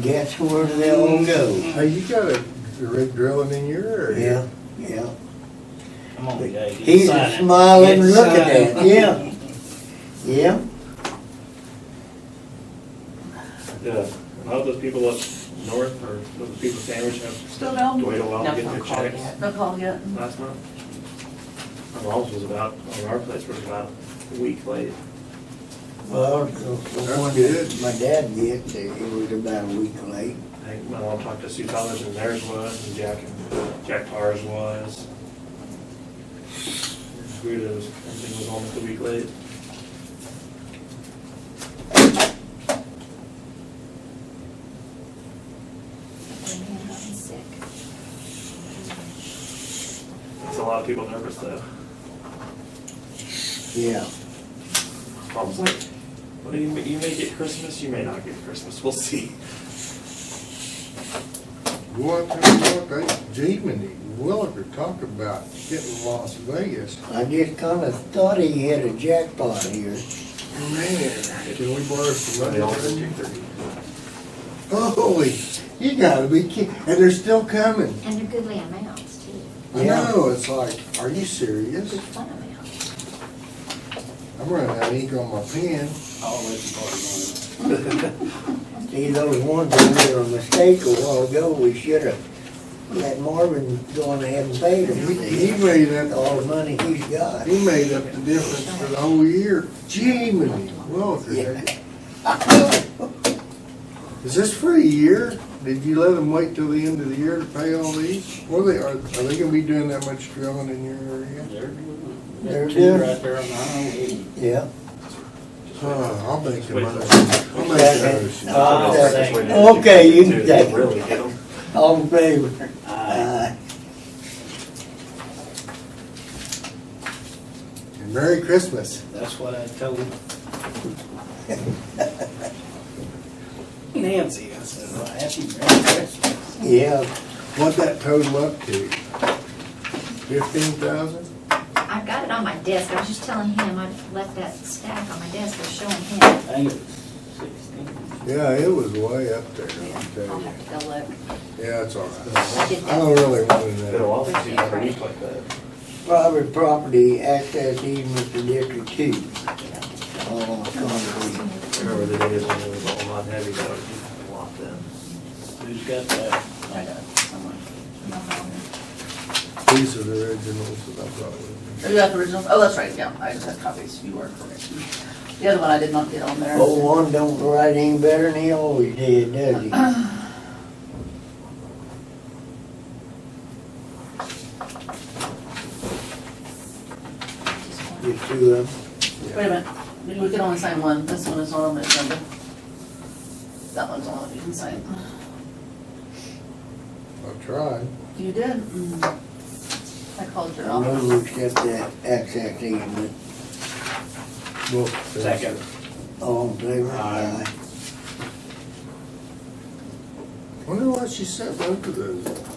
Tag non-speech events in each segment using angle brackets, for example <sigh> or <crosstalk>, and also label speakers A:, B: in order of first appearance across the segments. A: guess where they all go.
B: Hey, you got a rig drilling in your area.
A: Yeah, yeah.
C: Come on, Jay. get
A: He's
C: signing.
A: smiling,
C: Get
A: looking at it,
C: signing.
A: yeah. Yeah,
D: Yeah, all those people up north or those people sandwich have
E: Still down?
D: waited a while
E: No,
D: to get
E: no
D: their
E: call
D: checks
E: yet. No call yet.
D: last month. My mom's was about, on our place was about a week late.
A: well, the the one that my dad did, it was about a week late.
D: I think my mom talked to Sue Thomas and theirs was, and Jack, and Jack Parr's was. Guido's, everything was almost a week late.
F: sick.
D: It's a lot of people nervous though.
A: Yeah,
D: Mom's like, well, you may, you may get Christmas, you may not get Christmas, we'll see.
B: Go out there and look, they, Gene and Williger talk about hitting Las Vegas.
A: I just kinda thought he had a jackpot here.
B: Man, can we borrow some
D: They all just
B: money?
D: do thirty.
B: Holy, you gotta be kidding, and they're still coming.
F: And they're goodly amounts too,
B: I
A: Yeah.
B: know, it's like, are you serious?
F: good fun amounts.
B: I'm running out of ink on my pen.
C: I'll let you party
A: See, those ones that were a mistake a while ago, we should've let Marvin go on ahead and pay them.
B: He he made
A: With
B: up,
A: all the money he's got.
B: he made up the difference for the whole year. Gene Williger. Is this for a year? Did you let them wait till the end of the year to pay all these? Or they, are, are they gonna be doing that much drilling in your area?
C: on it. <laughs> There it is.
A: There it
C: Two
A: is.
C: right there on the highway.
A: Yeah.
B: Uh, I'll make the
D: Wait.
B: money. I'll make the motion.
A: Uh,
D: That's the way they
A: Okay,
D: do
A: you can
D: too.
A: take it.
D: Really, you know?
A: All in favor? Aye.
B: And Merry Christmas.
C: That's what I told
A: <laughs>
C: him. Nancy, I said, "Well, happy Merry Christmas.
A: Yeah,
B: What that total up to? Fifteen thousand?
F: I've got it on my desk, I was just telling him, I left that stack on my desk, I was showing him.
C: I think it was sixteen.
B: Yeah, it was way up there, I'll
F: I'll
B: tell you.
F: have to go look.
B: Yeah, it's all right.
F: I did
B: I don't
F: that.
B: really want to
D: Been a
B: know.
D: while since you've had a week like that.
A: private property access easement to District Two. Oh, concrete.
D: Remember the days when it was all not heavy, that would be a lot then.
C: Who's got that?
E: I got it somewhere.
B: These are the originals that I brought with
E: Is that the original? Oh, that's right, yeah, I just had copies, you are correct. The other one I did not get on there.
A: Old one don't write any better than he always did, does he? Just two of them.
E: Wait a minute, we we can only sign one, this one is on the agenda. That one's all that you can sign.
B: me. I tried.
E: You did? Mm. I called your
A: I
E: office.
A: move we accept that access easement.
B: Well,
C: Second.
A: All in favor?
C: Aye.
B: Wonder why she sent both of those.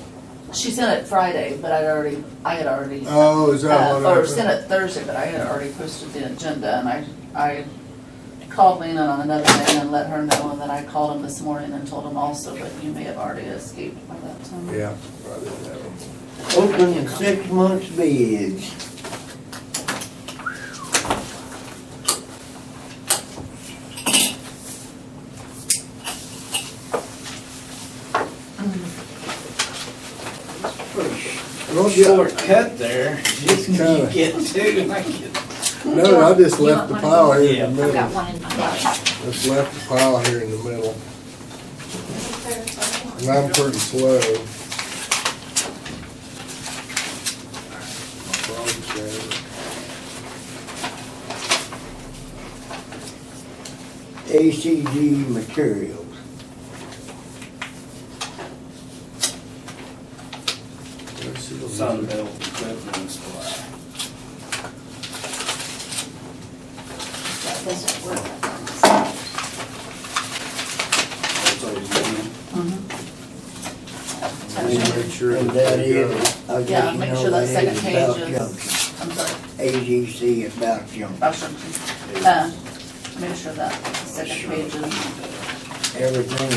E: She sent it Friday, but I'd already, I had already.
B: Oh, is that
E: Uh,
B: what
E: Or sent
B: happened?
E: it Thursday, but I had already posted the agenda and I, I called Lena on another day and let her know and then I called him this morning and told him also, but you may have already escaped by that time.
B: Yeah, probably that one.
A: Aye. Open six months bids.
B: Well,
C: Shortcut there. <laughs> You
B: kinda-
C: get two, I get.
B: No, I just
F: You
B: left the
F: want
B: pile
F: one of
B: here in
C: these?
B: the
F: I've got
B: middle.
F: one in my desk.
B: Just left the pile here in the middle. And I'm pretty slow. My problem solver.
A: ACG Materials.
B: Let's see what we do.
C: Sunbelt Equipment Supply.
F: That doesn't work.
C: That's always been.
E: Mm-hmm.
B: We'll make sure
A: And
B: that
A: that
B: they go.
A: is, I
E: Yeah,
A: just
E: make
A: know
E: sure that
A: that
E: second
A: is
E: page
A: about Junction.
E: is, I'm sorry,
A: AGC at Bout Junction.
E: about something. Uh, make sure that second page is.
A: Everything